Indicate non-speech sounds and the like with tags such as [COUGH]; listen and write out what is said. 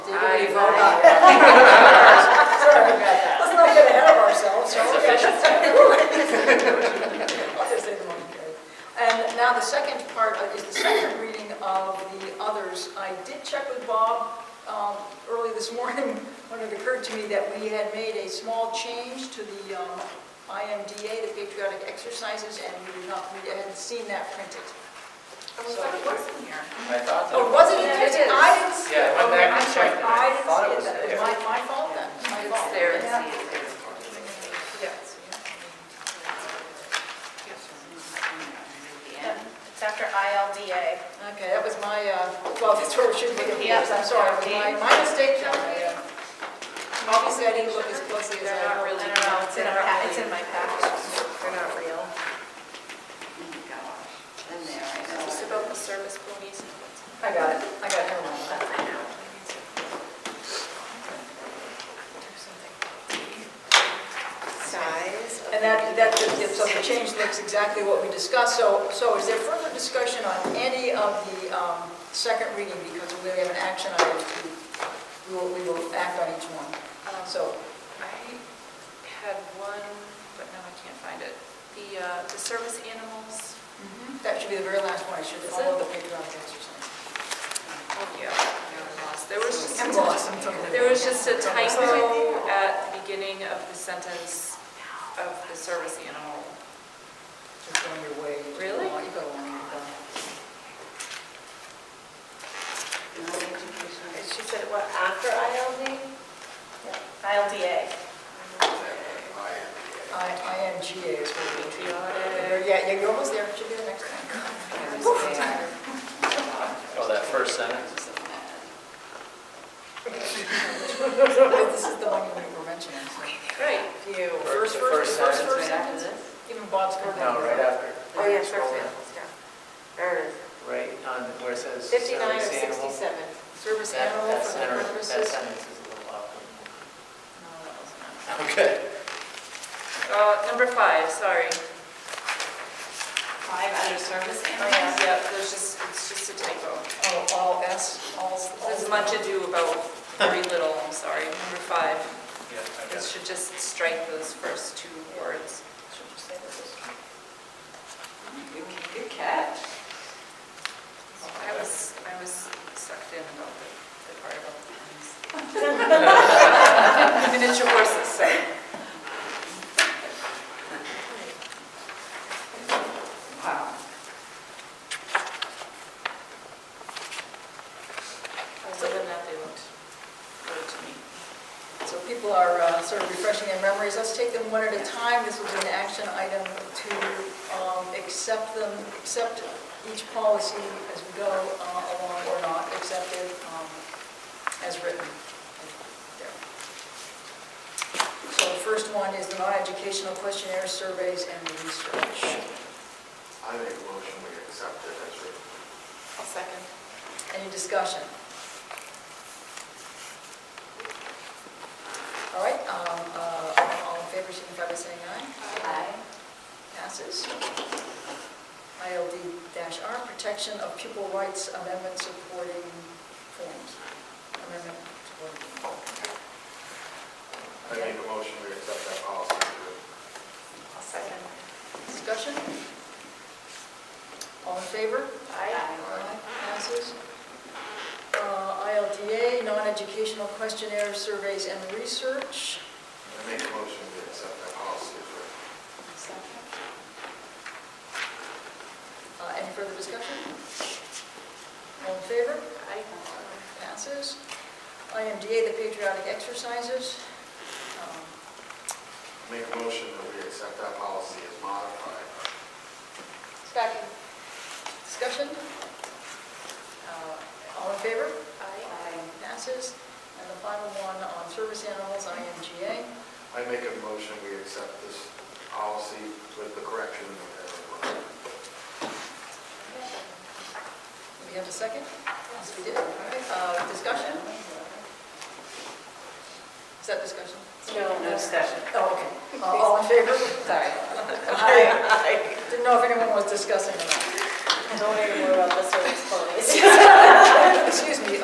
no, not. Sorry about that. Let's not get ahead of ourselves, shall we? I'll just say the motion carried. And now the second part of- is the second reading of the others. I did check with Bob um, early this morning when it occurred to me that we had made a small change to the um, IMDA, the patriotic exercises, and we did not, we hadn't seen that printed. I was like, what's in here? I thought that. Oh, was it? Yeah, it is. I didn't see it. Yeah, I Okay, went back and I'm sorry. checked it. I I didn't thought see it it. was That was there. my, my fault then. My fault. It's there, Yeah. see, it's there. Yep, It's after ILDA. Okay, that was my, uh, well, that's where we should be, yes, I'm sorry, it was my, my mistake. I, uh, Obviously, I didn't look as closely as They're I not really. really, no, it's in our, pa- it's in my package. They're not real. In there, I know. Just about the service ponies and what's. I got it, I got it, hold on. Size. of And that, that, so the change looks exactly what we discussed, so, so is there further discussion on any of the um, second reading, because we have an action item to, we will, we will act on each one, Um, so. I had one, but now I can't find it. The, uh, the service animals. That should be the very last one, I should Is follow it? the patriotic exercise. Oh, yeah. I lost. There was just. I'm lost, I'm totally- There was just a typo at the beginning of the sentence of the service animal. Just going your way. Really? You go along, you go. non-educational. She said, what, after ILD? ILDA. I, IMGA is what we treat. Patriotic. Yeah, yeah, you're almost there, should be the next [LAUGHS] one. Oh, that first sentence? This is the one you were mentioning. so. Right. You, First- first, the first, first first, sentence. first sentence? Even Bob's going down. No, right after. Oh, yeah, service animals, yeah. There it is. Right on where it says. Fifty-nine or service animal. sixty-seven. Service That- animal for that the sentence- That purposes. sentence is a little awkward. No, that was not. [LAUGHS] Okay. Uh, number five, sorry. Five under service Yep, there's just, it's just a typo. Oh, all S, all. s- all- There's much ado about very little, I'm sorry. Number five, Yeah, I it guess. should just strike those first two words. Good catch. I was, I was sucked in about the, the part about the [LAUGHS] horns. The Miniature horses, so. Wow. Other than that, they looked good to me. So people are uh, sort of refreshing their memories. Let's take them one at a time. This was an action item to um, accept them, accept each policy as we go uh, along or not, accept it um, as written. There. So the first one is the non-educational questionnaire surveys and research. I make a motion we accept it as written. A second. Any discussion? All right, um, uh, all in favor, signify by saying aye. Aye. Passes. ILD-R, Protection of Pupil Rights Amendment Supporting Forms. Amendment supporting forms. I make a motion we accept that policy as written. A second. Discussion? All in favor? Aye. Passes. Uh, ILDA, Non-Educational Questionnaire Surveys and Research. I make a motion we accept that policy as written. Uh, Any further discussion? All in favor? Aye. Passes. IMDA, the Patriotic Exercises. Um, Make a motion that we accept that policy as modified. Second. Discussion? Uh, All in favor? Aye. Passes. And the final one on service animals, IMGA. I make a motion we accept this policy with the correction of everyone. Do we have a second? Yes, we did. All right, uh, Discussion? Is that discussion? No, no discussion. Oh, okay. Uh, All in favor? Sorry. Aye. Didn't know if anyone was discussing or Don't even worry about the service [LAUGHS] ponies. not. Excuse me,